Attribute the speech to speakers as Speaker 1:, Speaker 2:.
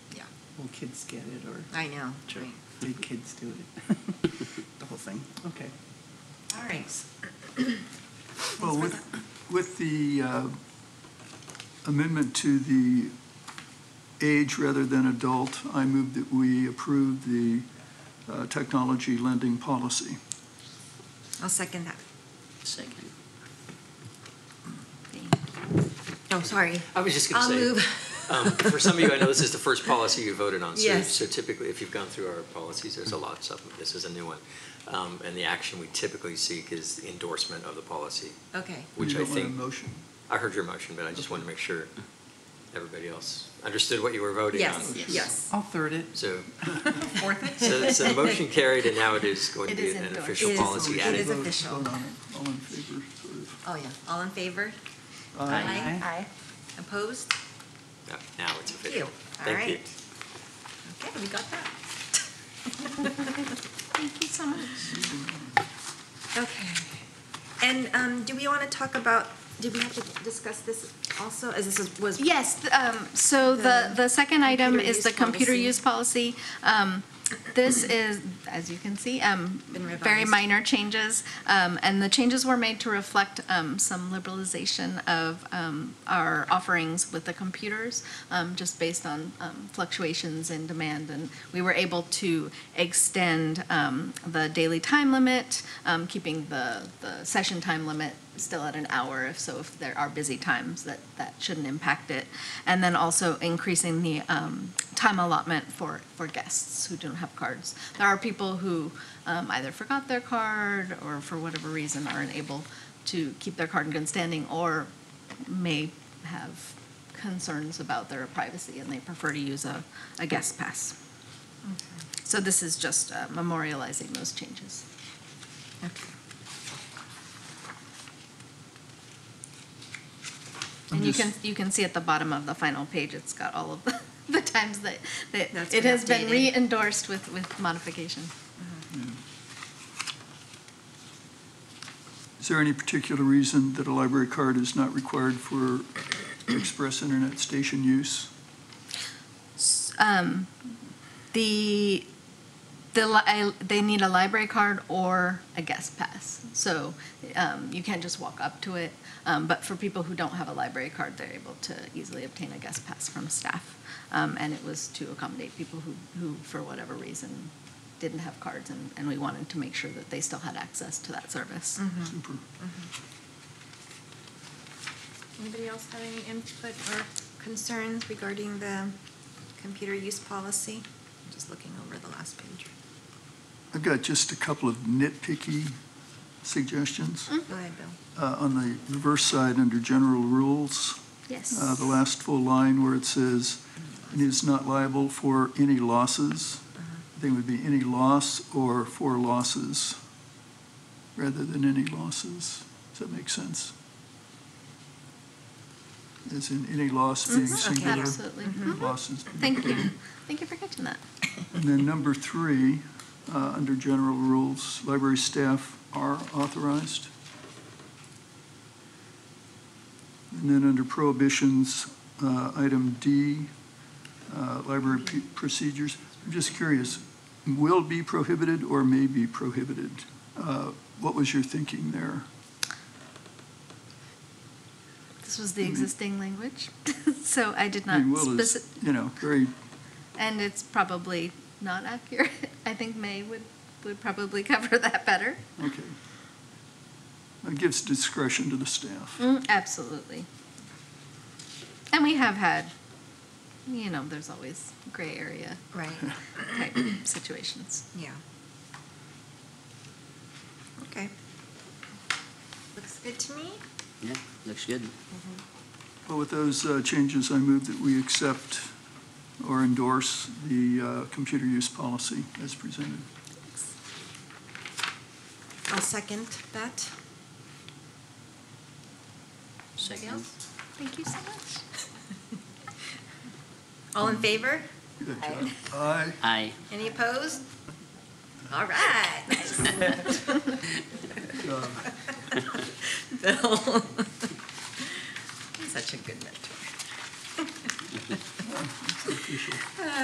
Speaker 1: will kids get it or
Speaker 2: I know, right.
Speaker 1: did kids do it? The whole thing, okay.
Speaker 2: All right.
Speaker 3: Well, with, with the uh, amendment to the age rather than adult, I move that we approve the uh, technology lending policy.
Speaker 2: I'll second that.
Speaker 4: Second.
Speaker 2: Oh, sorry.
Speaker 4: I was just going to say.
Speaker 2: I'll move.
Speaker 4: um, For some of you, I know this is the first policy you voted on. so-
Speaker 2: Yes.
Speaker 4: So typically, if you've gone through our policies, there's a lot of stuff, this is a new one. Um, And the action we typically seek is endorsement of the policy,
Speaker 2: Okay.
Speaker 4: which
Speaker 3: You
Speaker 4: I
Speaker 3: don't want a
Speaker 4: think,
Speaker 3: motion.
Speaker 4: I heard your motion, but I just wanted to make sure everybody else understood what you were voting on.
Speaker 2: Yes, yes.
Speaker 1: I'll third it.
Speaker 4: So,
Speaker 2: Fourth
Speaker 4: so so the motion carried, and now it is going to
Speaker 5: It
Speaker 4: be
Speaker 5: is
Speaker 4: an
Speaker 5: endorsed.
Speaker 4: official
Speaker 2: It is
Speaker 4: policy
Speaker 2: endorsed. It is
Speaker 4: added.
Speaker 3: Vote-
Speaker 2: official.
Speaker 3: vote on it. All in favor, sort of.
Speaker 2: Oh, yeah. All in favor?
Speaker 3: Aye.
Speaker 1: Aye.
Speaker 2: Aye. Opposed?
Speaker 4: No, Now it's
Speaker 2: Thank you.
Speaker 4: official.
Speaker 2: All
Speaker 4: Thank you.
Speaker 2: right. Okay, we got that.
Speaker 5: Thank you so much.
Speaker 2: Okay. And um, do we want to talk about, did we have to discuss this also, as this is- was?
Speaker 5: Yes, th- um, so the,
Speaker 2: The
Speaker 5: the second item
Speaker 2: computer
Speaker 5: is the
Speaker 2: use
Speaker 5: computer
Speaker 2: policy.
Speaker 5: use policy. Um, This is, as you can see, um,
Speaker 2: Been
Speaker 5: very
Speaker 2: revised.
Speaker 5: minor changes. um, And the changes were made to reflect um, some liberalization of um, our offerings with the computers, um, just based on um, fluctuations in demand. And we were able to extend um, the daily time limit, um, keeping the, the session time limit still at an hour, if so, if there are busy times, that, that shouldn't impact it. And then also increasing the um, time allotment for, for guests who don't have cards. There are people who um, either forgot their card or for whatever reason aren't able to keep their card in good standing or may have concerns about their privacy and they prefer to use a, a guest pass. So this is just uh, memorializing those changes.
Speaker 2: Okay.
Speaker 5: And you
Speaker 3: I'm
Speaker 5: can,
Speaker 3: just-
Speaker 5: you can see at the bottom of the final page, it's got all of the, the times that, that
Speaker 2: That's
Speaker 5: it
Speaker 2: been
Speaker 5: has been
Speaker 2: updated.
Speaker 5: re-endorsed with, with modification.
Speaker 3: Is there any particular reason that a library card is not required for express internet station use?
Speaker 5: S- Um, the, the, li- I- they need a library card or a guest pass. So, um, you can't just walk up to it. Um, but for people who don't have a library card, they're able to easily obtain a guest pass from staff. Um, and it was to accommodate people who, who, for whatever reason, didn't have cards and, and we wanted to make sure that they still had access to that service.
Speaker 2: Mm-hmm.
Speaker 3: Super.
Speaker 2: Anybody else have any input or concerns regarding the computer use policy? I'm Just looking over the last page.
Speaker 3: I've got just a couple of nitpicky suggestions.
Speaker 2: Go ahead, Bill.
Speaker 3: Uh, On the reverse side, under general rules,
Speaker 5: Yes.
Speaker 3: uh, the last full line where it says, "and is not liable for any losses,"
Speaker 5: Uh-huh.
Speaker 3: I think it would be any loss or for losses, rather than any losses. Does that make sense? As in any loss being
Speaker 5: Mhm.
Speaker 2: Okay.
Speaker 3: singular.
Speaker 5: Absolutely. Mm-hmm.
Speaker 3: and Losses being
Speaker 5: Thank you. Thank you for catching that.
Speaker 3: And then number three, uh, under general rules, library staff are authorized. And then under prohibitions, uh, item D, uh, library p- procedures, I'm just curious, will be prohibited or may be prohibited? Uh, What was your thinking there?
Speaker 5: This was the
Speaker 3: Mhm.
Speaker 5: existing language, so I did
Speaker 3: I
Speaker 5: not
Speaker 3: mean, will is,
Speaker 5: specific,
Speaker 3: you know, very,
Speaker 5: and it's probably not accurate. I think May would, would probably cover that better.
Speaker 3: okay. It gives discretion to the staff.
Speaker 5: Mm, Absolutely. And we have had, you know, there's always gray area
Speaker 2: Right,
Speaker 5: type situations.
Speaker 2: yeah. Okay. Looks good to me.
Speaker 4: Yeah, looks good.
Speaker 3: Well, with those uh, changes, I move that we accept or endorse the uh, computer use policy as presented.
Speaker 2: I'll second that. Anybody
Speaker 4: Second.
Speaker 2: else?
Speaker 5: Thank you so much.
Speaker 2: All in favor?
Speaker 3: Good job. Aye.
Speaker 4: Aye.
Speaker 2: Any opposed? All right.
Speaker 3: Good job.
Speaker 2: Bill. Such a good mentor.